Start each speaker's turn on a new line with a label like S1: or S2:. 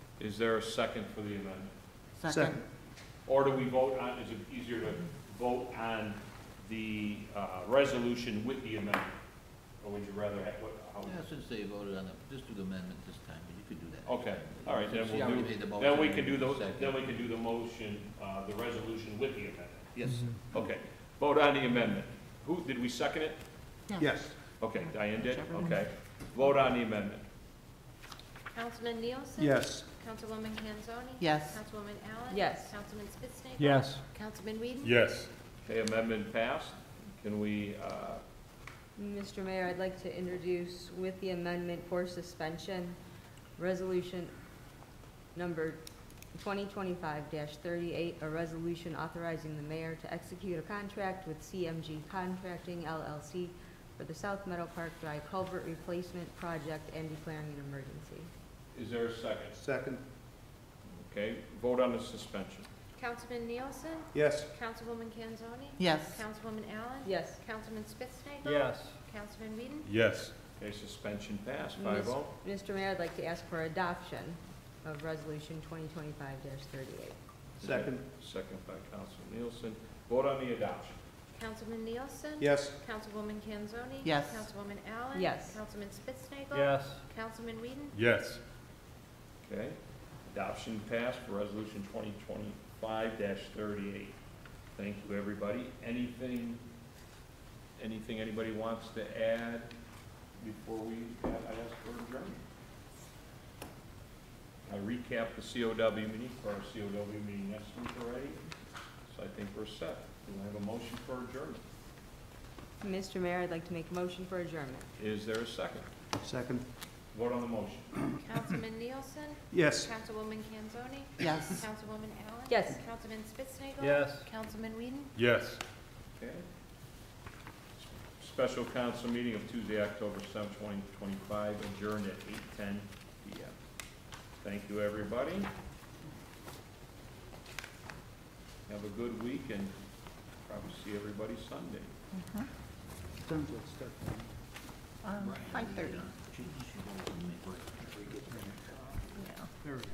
S1: Is there a second for the amendment?
S2: Second.
S1: Or do we vote on, is it easier to vote on the uh, resolution with the amendment? Or would you rather have, what,
S3: Yeah,
S1: how?
S3: since they voted on it, just do the amendment this time, but you could do that.
S1: Okay, all right, then
S3: See how
S1: we'll
S3: we
S1: do,
S3: made the motion
S1: then we can do
S3: and
S1: the,
S3: second.
S1: then we can do the motion, uh, the resolution with the amendment.
S3: Yes,
S2: Mm-hmm.
S1: Okay, vote on the amendment. Who, did we second it?
S2: Yes.
S1: Okay, Diane did,
S2: Whichever one.
S1: okay. Vote on the amendment.
S4: Councilman Nielsen?
S2: Yes.
S4: Councilwoman Kanzoni?
S5: Yes.
S4: Councilwoman Allen?
S5: Yes.
S4: Councilman Spitznagel.
S2: Yes.
S4: Councilman Whedon?
S6: Yes.
S1: Okay, amendment passed. Can we, uh,
S7: Mr. Mayor, I'd like to introduce with the amendment for suspension, resolution number 2025-38, a resolution authorizing the mayor to execute a contract with CMG Contracting LLC for the South Meadow Park Drive Culvert Replacement Project and declaring an emergency.
S1: is there a second?
S2: Second.
S1: Okay, vote on the suspension.
S4: Councilman Nielsen?
S2: Yes.
S4: Councilwoman Kanzoni?
S5: Yes.
S4: Councilwoman Allen?
S7: Yes.
S4: Councilman Spitznagel.
S2: Yes.
S4: Councilman Whedon?
S6: Yes.
S1: Okay, suspension passed,
S7: Miss-
S1: five oh.
S7: Mr. Mayor, I'd like to ask for adoption of resolution 2025-38.
S2: Second.
S1: Second by Councilman Nielsen. Vote on the adoption.
S4: Councilman Nielsen?
S2: Yes.
S4: Councilwoman Kanzoni?
S5: Yes.
S4: Councilwoman Allen?
S7: Yes.
S4: Councilman Spitznagel.
S2: Yes.
S4: Councilman Whedon?
S6: Yes.
S1: Okay? Adoption passed for resolution twenty twenty-five thirty-eight. Thank you, everybody. Anything, anything anybody wants to add before we, I ask for adjournment? I recapped the COW meeting, for our COW meeting next week already, so I think we're set. Do I have a motion for adjournment?
S7: Mr. Mayor, I'd like to make a motion for adjournment.
S1: Is there a second?
S2: Second.
S1: Vote on the motion.
S4: Councilman Nielsen?
S2: Yes.
S4: Councilwoman Kanzoni?
S5: Yes.
S4: Councilwoman Allen?
S7: Yes.
S4: Councilman Spitznagel.
S2: Yes.
S4: Councilman Whedon?
S6: Yes.
S1: Okay. Special council meeting of Tuesday, October seventh, twenty twenty-five, adjourned at eight ten P M. Thank you, everybody. Have a good week and probably see everybody Sunday.
S5: Five thirty.
S3: Change the vote and make-
S5: Yeah.